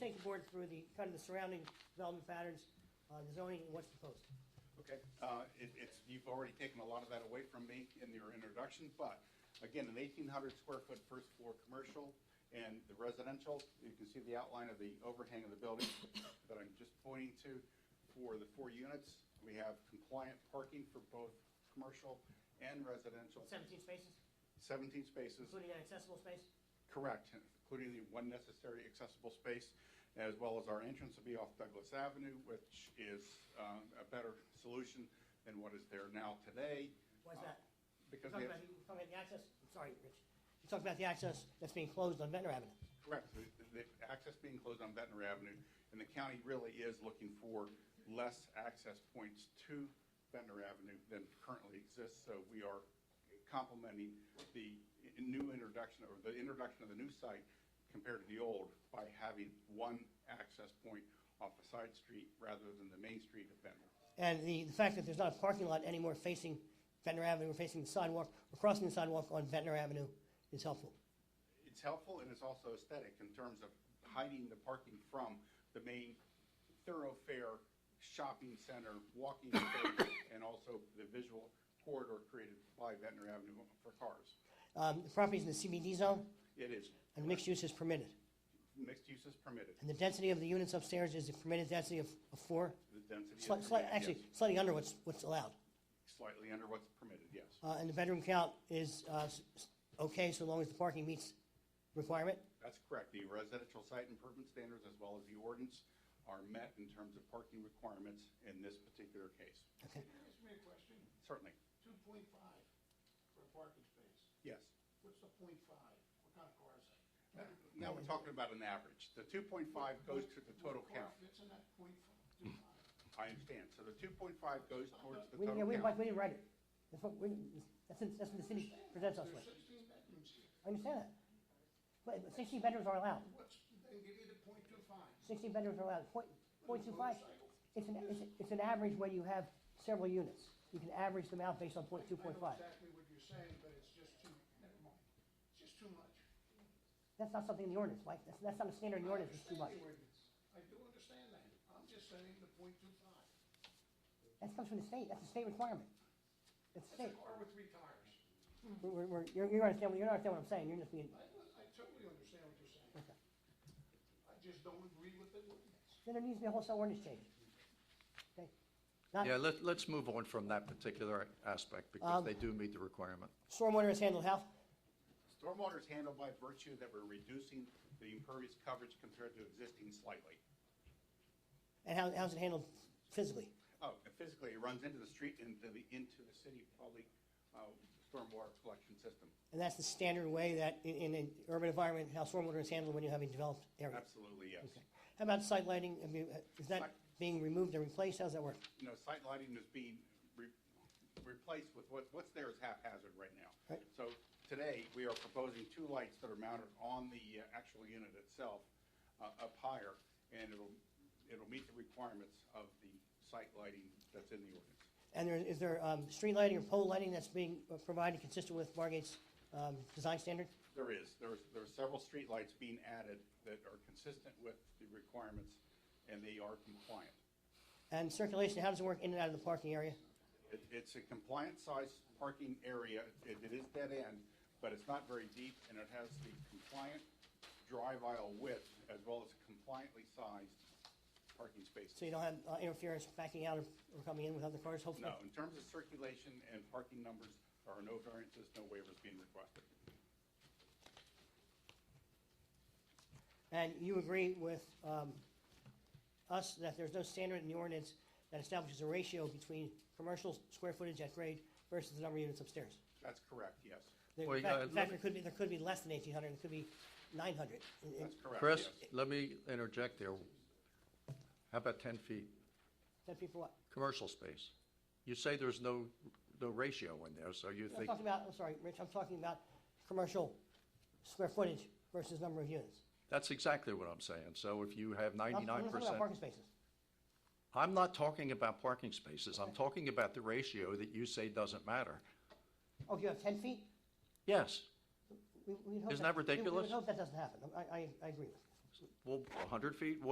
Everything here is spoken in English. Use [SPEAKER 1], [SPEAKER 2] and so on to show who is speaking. [SPEAKER 1] take the board through the, kind of the surrounding development patterns, uh, the zoning, and what's proposed.
[SPEAKER 2] Okay, uh, it, it's, you've already taken a lot of that away from me in your introduction, but again, an eighteen hundred square foot first floor commercial and the residential, you can see the outline of the overhang of the building that I'm just pointing to. For the four units, we have compliant parking for both commercial and residential,
[SPEAKER 1] Seventeen spaces,
[SPEAKER 2] seventeen spaces.
[SPEAKER 1] including an accessible space.
[SPEAKER 2] Correct, including the one necessary accessible space, as well as our entrance will be off Douglas Avenue, which is um, a better solution than what is there now today.
[SPEAKER 1] Why is
[SPEAKER 2] Uh,
[SPEAKER 1] that? You're
[SPEAKER 2] Because we
[SPEAKER 1] talking
[SPEAKER 2] have,
[SPEAKER 1] about, you're talking about the access, I'm sorry, Rich. You're talking about the access that's being closed on Ventnor Avenue.
[SPEAKER 2] correct, the- the access being closed on Ventnor Avenue, and the county really is looking for less access points to Ventnor Avenue than currently exists, so we are complementing the i- new introduction, or the introduction of the new site compared to the old by having one access point off a side street rather than the main street of Ventnor.
[SPEAKER 1] And the, the fact that there's not a parking lot anymore facing Ventnor Avenue, we're facing the sidewalk, we're crossing the sidewalk on Ventnor Avenue is helpful.
[SPEAKER 2] It's helpful and it's also aesthetic in terms of hiding the parking from the main thoroughfare, shopping center, walking space, and also the visual corridor created by Ventnor Avenue for cars.
[SPEAKER 1] Um, the property's in the CBD zone
[SPEAKER 2] It is,
[SPEAKER 1] and mixed use is permitted.
[SPEAKER 2] mixed use is permitted,
[SPEAKER 1] And the density of the units upstairs is the permitted density of, of four,
[SPEAKER 2] the density is
[SPEAKER 1] slight, slight,
[SPEAKER 2] permitted,
[SPEAKER 1] actually
[SPEAKER 2] yes.
[SPEAKER 1] slightly under what's, what's allowed.
[SPEAKER 2] Slightly under what's permitted, yes.
[SPEAKER 1] Uh, and the bedroom count is, uh, s- s- okay so long as the parking meets requirement.
[SPEAKER 2] That's correct. The residential site improvement standards as well as the ordinance are met in terms of parking requirements in this particular case.
[SPEAKER 1] Okay.
[SPEAKER 3] Can you ask me a question?
[SPEAKER 2] Certainly,
[SPEAKER 3] Two point five for a parking space.
[SPEAKER 2] yes.
[SPEAKER 3] What's the point five? What kind of car is that?
[SPEAKER 2] Now we're talking about an average. The two point five goes to the total
[SPEAKER 3] What
[SPEAKER 2] count.
[SPEAKER 3] car Fits in that point five, two five.
[SPEAKER 2] I understand. So the two point five goes towards the
[SPEAKER 1] We, yeah,
[SPEAKER 2] total
[SPEAKER 1] we,
[SPEAKER 2] count.
[SPEAKER 1] we didn't write it. That's what, we, that's, in- that's what the city presents us with.
[SPEAKER 3] There's sixteen bedrooms here.
[SPEAKER 1] I understand that. But but sixteen bedrooms are allowed.
[SPEAKER 3] What's, they give you the point two five.
[SPEAKER 1] Sixteen bedrooms are allowed, point, point two five. It's an, it's, it's an average when you have several units. You can average them out based on point two, point
[SPEAKER 3] I
[SPEAKER 1] five.
[SPEAKER 3] know exactly what you're saying, but it's just too, never mind. It's just too much.
[SPEAKER 1] That's not something in the ordinance, Mike. That's, that's not a standard in the ordinance, it's too much.
[SPEAKER 3] I understand the ordinance. I do understand that. I'm just saying the point two five.
[SPEAKER 1] That comes from the state, that's a state requirement. It's
[SPEAKER 3] That's
[SPEAKER 1] state.
[SPEAKER 3] a car with three tires.
[SPEAKER 1] We're, we're- we're, you're, you're understand, you're not understand what I'm saying, you're just being,
[SPEAKER 3] I, I totally understand what you're saying. I just don't agree with the ordinance.
[SPEAKER 1] then there needs to be a wholesale ordinance change. Okay? Not,
[SPEAKER 4] Yeah, let, let's move on from that particular aspect
[SPEAKER 1] Uh, Um,
[SPEAKER 4] because they do meet the requirement.
[SPEAKER 1] stormwater is handled how?
[SPEAKER 2] Stormwater is handled by virtue that we're reducing the impervious coverage compared to existing slightly.
[SPEAKER 1] And how, how's it handled physically?
[SPEAKER 2] Oh, and physically, it runs into the street and into the, into the city public, uh, stormwater collection system.
[SPEAKER 1] And that's the standard way that, in, in an urban environment, how stormwater is handled when you have a developed area.
[SPEAKER 2] Absolutely, yes.
[SPEAKER 1] Okay. How about site lighting? I mean, uh, is that being removed and replaced? How's that work?
[SPEAKER 2] You know, site lighting is being re- replaced with what, what's there is haphazard right now.
[SPEAKER 1] Right.
[SPEAKER 2] So today, we are proposing two lights that are mounted on the uh, actual unit itself, uh, up higher, and it'll, it'll meet the requirements of the site lighting that's in the ordinance.
[SPEAKER 1] And there, is there, um, street lighting or pole lighting that's being uh, provided consistent with Margate's, um, design standard?
[SPEAKER 2] There is, there's, there are several streetlights being added that are consistent with the requirements, and they are compliant.
[SPEAKER 1] And circulation, how does it work in and out of the parking area?
[SPEAKER 2] It, it's a compliant-sized parking area, it, it is dead end, but it's not very deep, and it has the compliant drive aisle width, as well as compliantly sized parking
[SPEAKER 1] So
[SPEAKER 2] spaces.
[SPEAKER 1] you don't have uh, interference backing out or or coming in with other cars, hopefully?
[SPEAKER 2] No, in terms of circulation and parking numbers, there are no variances, no waivers being requested.
[SPEAKER 1] And you agree with um, us that there's no standard in the ordinance that establishes a ratio between commercial square footage at grade versus the number of units upstairs?
[SPEAKER 2] That's correct, yes,
[SPEAKER 1] There-
[SPEAKER 4] Well,
[SPEAKER 1] In
[SPEAKER 4] you
[SPEAKER 1] fact,
[SPEAKER 4] gotta
[SPEAKER 1] in fact, there
[SPEAKER 4] look-
[SPEAKER 1] could be, there could be less than 1,800, and it could be 900. And- and
[SPEAKER 2] that's correct, yes.
[SPEAKER 4] Chris, let me interject there. How about ten feet,
[SPEAKER 1] That people, what?
[SPEAKER 4] commercial space? You say there's no, no ratio in there, so you
[SPEAKER 1] I'm
[SPEAKER 4] think,
[SPEAKER 1] talking about, I'm sorry, Rich, I'm talking about commercial square footage versus number of units.
[SPEAKER 4] that's exactly what I'm saying. So if you have
[SPEAKER 1] I'm- I'm not
[SPEAKER 4] ninety-nine
[SPEAKER 1] talking about
[SPEAKER 4] percent.
[SPEAKER 1] parking spaces.
[SPEAKER 4] I'm not talking about parking spaces. I'm talking about the ratio that you say doesn't matter.
[SPEAKER 1] Oh, if you have 10 feet?
[SPEAKER 4] Yes,
[SPEAKER 1] We- we'd hope
[SPEAKER 4] Isn't that
[SPEAKER 1] we-
[SPEAKER 4] ridiculous?
[SPEAKER 1] We would hope that doesn't happen. I- I I agree with you.
[SPEAKER 4] Well, 100 feet, what